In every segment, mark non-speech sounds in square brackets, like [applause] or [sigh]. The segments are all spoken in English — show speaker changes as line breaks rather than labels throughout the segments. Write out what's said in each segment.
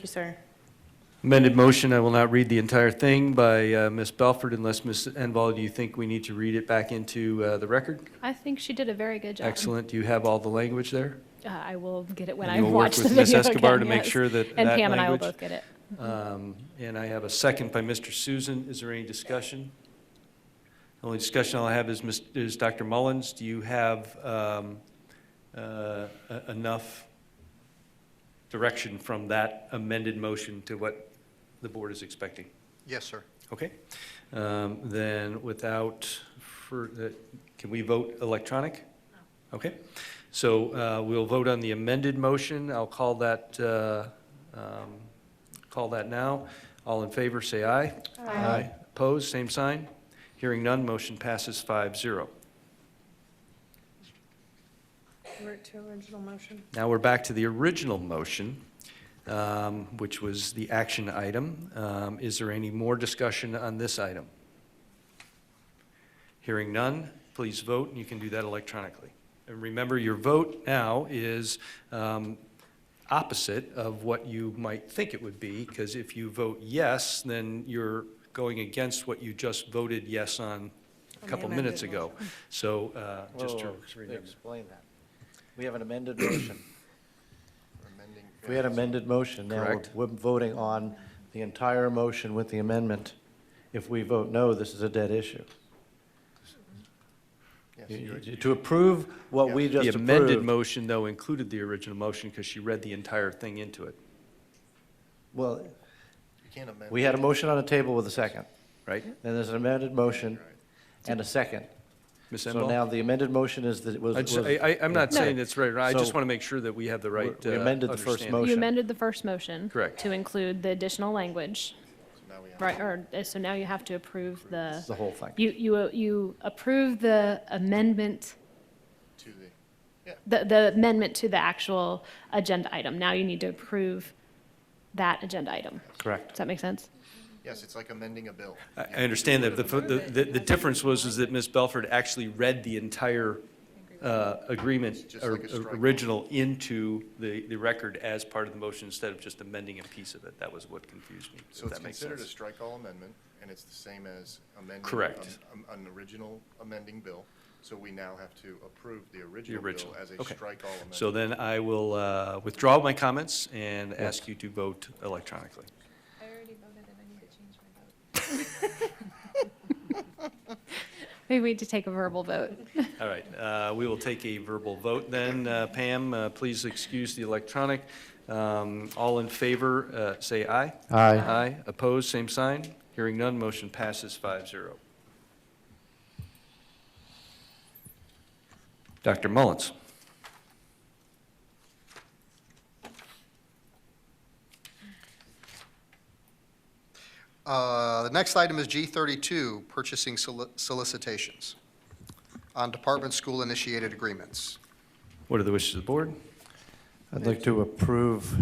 you, sir.
Amended motion, I will not read the entire thing by uh, Ms. Belford unless, Ms. Enval, do you think we need to read it back into uh, the record?
I think she did a very good job.
Excellent. Do you have all the language there?
Uh, I will get it when
And
I
you will work
watch the
with
video
Ms.
again.
Escobar to make
yes.
sure that
And
that
Pam and I will
language-
both get it.
Um, And I have a second by Mr. Susan. Is there any discussion? The Only discussion I'll have is, Ms- is Dr. Mullins, do you have um, uh, e- enough direction from that amended motion to what the board is expecting?
Yes, sir.
Okay, Um, then without, fur- uh, can we vote electronic? Okay, so uh, we'll vote on the amended motion. I'll call that, uh, um, call that now. All in favor, say aye. Aye. Opposed, same sign. Hearing none, motion passes five zero.
Revert to original motion.
Now we're back to the original motion, um, which was the action item. Um, Is there any more discussion on this item? Hearing none, please vote, and you can do that electronically. And remember, your vote now is um, opposite of what you might think it would be, because if you vote yes, then you're going against what you just voted yes on a
On the
couple
amended
minutes ago. So uh, just to
Whoa,
remember.
Explain that. We have an amended motion.
Amending.
If [coughs] we had amended motion, now we're-
Correct.
we're voting on the entire motion with the amendment. If we vote no, this is a dead issue.
Yes,
You-
you-
you- To approve what we just
The amended
approved.
motion, though, included the original motion because she read the entire thing into it,
Well,
you can't amend.
we had a motion on the table with a second.
right?
Then there's an amended motion and a second.
Ms.
So now
Enval?
the amended motion is that it was.
I just-
was-
I, I- I'm not
No.
saying it's right, or I just
So-
want to make sure that we have the right
We
uh,
amended the first
understanding.
motion.
You amended the first motion.
Correct.
To include the additional language,
So now we have-
right, or, uh, so now you have to approve the.
The whole thing.
You, you, uh, you approve the amendment,
To the,
the, the amendment to the actual agenda item. Now you need to approve that agenda item.
Correct.
Does that make sense?
yes, it's like amending a bill.
I I understand that. The, fo- the, the the difference was is that Ms. Belford actually read the entire uh, agreement,
Just
or
like a strike.
original, into the, the record as part of the motion instead of just amending a piece of it. That was what confused me,
So
if
it's
that makes
considered a
sense.
strike all amendment, and it's the same as amending.
Correct.
an- um, An original amending bill, so we now have to approve the original
original,
bill as a
okay.
strike all amendment.
So then I will uh, withdraw my comments and ask you to vote electronically.
I already voted and I need to change my vote.
Maybe we need to take a verbal vote.
All right, uh, we will take a verbal vote then. Uh, Pam, uh, please excuse the electronic. Um, All in favor, uh, say aye.
Aye.
Aye. Opposed, same sign. Hearing none, motion passes 5-0. Dr. Mullins?
Uh, The next item is G32, purchasing soli- solicitations on department school-initiated agreements.
What are the wishes of the board?
I'd like to approve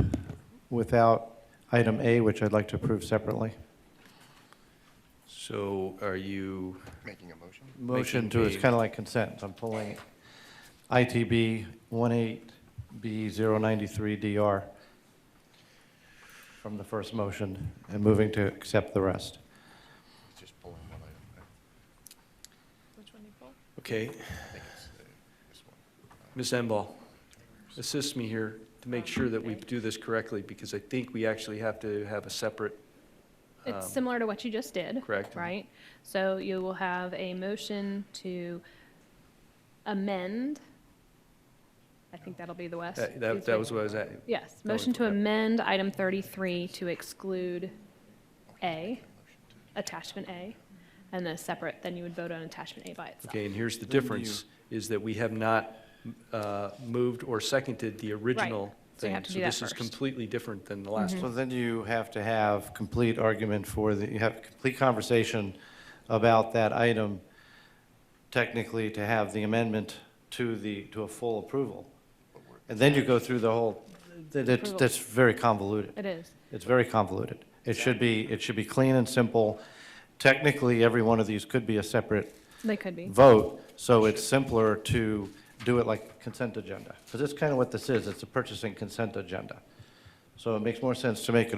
without item A, which I'd like to approve separately.
So are you,
Making a motion?
Motion to,
Making
it's
B.
kind of like consent, I'm pulling it. ITB 18B093DR from the first motion and moving to accept the rest.
It's just pulling one item. right?
Which one you pull?
okay,
I think it's uh, this one.
Ms. Enval, assist me here to make sure that we do this correctly, because I think we actually have to have a separate,
It's
Um,
similar to what you just did.
correct.
Right? So you will have a motion to amend. I think that'll be the West.
that, that- that was what I was at.
Yes,
that was-
motion to
yeah.
amend item 33 to exclude A, attachment A, and then separate, then you would vote on attachment A by itself.
Okay, and here's the difference, is that we have not uh, moved or seconded the original
so you
thing.
have to do that
So this is
first. Mm-hmm.
completely different than the last
So
one.
then you have to have complete argument for the, you have complete conversation about that item technically to have the amendment to the, to a full approval. And then you go through the whole, that- that's,
Approval.
that's very convoluted.
It is.
It's very convoluted. It should be, it should be clean and simple. Technically, every one of these could be a separate
They could be.
vote, so it's simpler to do it like consent agenda. Because that's kind of what this is, it's a purchasing consent agenda. So it makes more sense to make it a